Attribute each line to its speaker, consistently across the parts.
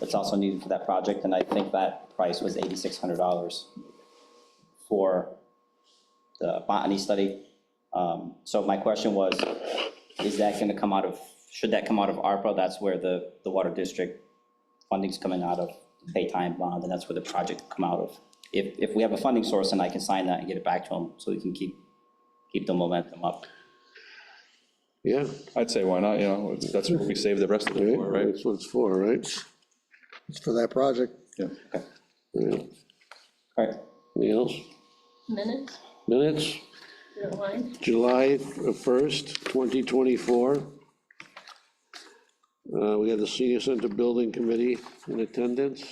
Speaker 1: that's also needed for that project, and I think that price was $8,600 for the botany study. Um, So my question was, is that going to come out of, should that come out of ARPA? That's where the, the water district funding's coming out of, paytime bond, and that's where the project come out of. If, if we have a funding source, and I can sign that and get it back to them, so we can keep, keep the momentum up.
Speaker 2: Yeah,
Speaker 3: I'd say why not, you know, that's what we save the rest of it for,
Speaker 2: right,
Speaker 3: right?
Speaker 2: that's what it's for, right?
Speaker 4: It's for that project.
Speaker 2: Yeah.
Speaker 1: All right,
Speaker 2: Anything else?
Speaker 5: Minutes,
Speaker 2: Minutes,
Speaker 5: you don't mind?
Speaker 2: July 1st, 2024. Uh, We have the Senior Center Building Committee in attendance,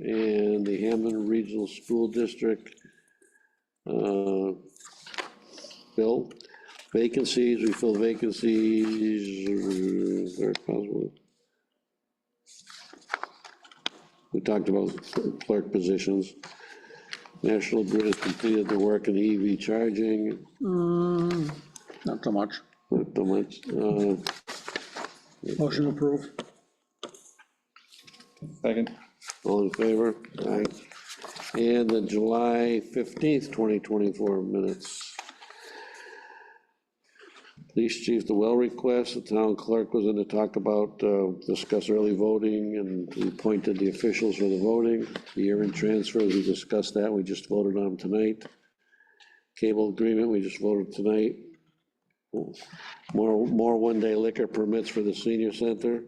Speaker 2: and the Hammond Regional School District. uh, Bill, vacancies, we fill vacancies, uh, where possible. We talked about clerk positions. National Grid has completed the work in EV charging,
Speaker 4: Not so much.
Speaker 2: not the much, uh,
Speaker 4: Motion approved.
Speaker 3: Second,
Speaker 2: all in favor? Aye. And the July fifteenth, twenty twenty-four minutes. Police chief, the well request, the town clerk was in to talk about, uh, discuss early voting, and we appointed the officials for the voting. The year-end transfers, we discussed that, we just voted on tonight. Cable agreement, we just voted tonight. More, more one-day liquor permits for the senior center.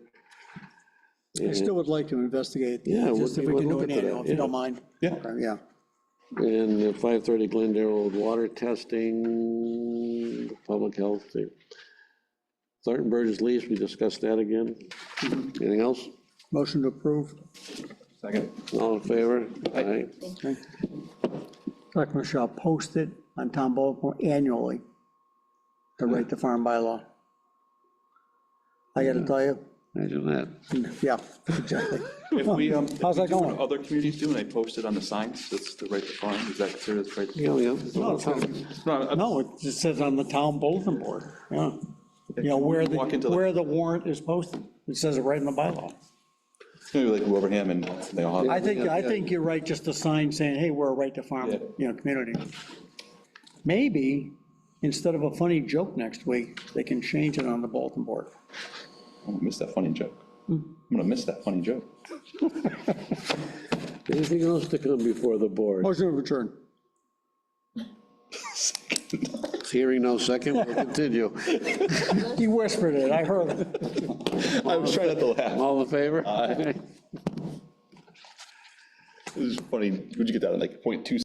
Speaker 4: I still would like to investigate,
Speaker 2: Yeah, we'll-
Speaker 4: just if we
Speaker 2: we'll
Speaker 4: can do
Speaker 2: look
Speaker 4: an
Speaker 2: into that,
Speaker 4: annual, if you
Speaker 2: yeah.
Speaker 4: don't mind.
Speaker 3: Yeah.
Speaker 4: Okay, Yeah.
Speaker 2: And the five thirty Glendale Road water testing, public health. thing. Thornton Burgess lease, we discussed that again. Anything else?
Speaker 4: Motion to approve.
Speaker 3: second.
Speaker 2: All in favor? Aye.
Speaker 4: Okay. Selectmen shall post it on town bulletin annually to write the farm bylaw. I gotta tell you,
Speaker 2: Imagine that.
Speaker 4: yeah, exactly.
Speaker 3: If we, um, if
Speaker 4: How's
Speaker 3: we
Speaker 4: that
Speaker 3: do what
Speaker 4: going?
Speaker 3: Other communities do, and they post it on the signs, that's the right to farm, is that considered the right?
Speaker 2: Yeah, yeah.
Speaker 3: No, I'm-
Speaker 4: No, it just says on the town bulletin board, yeah. You know, where the,
Speaker 3: Walk into the-
Speaker 4: where the warrant is posted. It says it right in the bylaw.
Speaker 3: maybe like Wilbraham and they all
Speaker 4: I
Speaker 3: have.
Speaker 4: think, I think you're right, just a sign saying, hey, we're a right to farm,
Speaker 3: Yeah.
Speaker 4: you know, community. Maybe, instead of a funny joke next week, they can change it on the bulletin board.
Speaker 3: I'm gonna miss that funny joke. I'm gonna miss that funny joke.
Speaker 2: Anything else to come before the board?
Speaker 4: Motion to adjourn.
Speaker 2: Hearing no second, we'll continue.
Speaker 4: He whispered it, I heard it.
Speaker 3: I was trying not to laugh.
Speaker 2: All in favor? Aye.
Speaker 3: It was funny, would you get that in like point two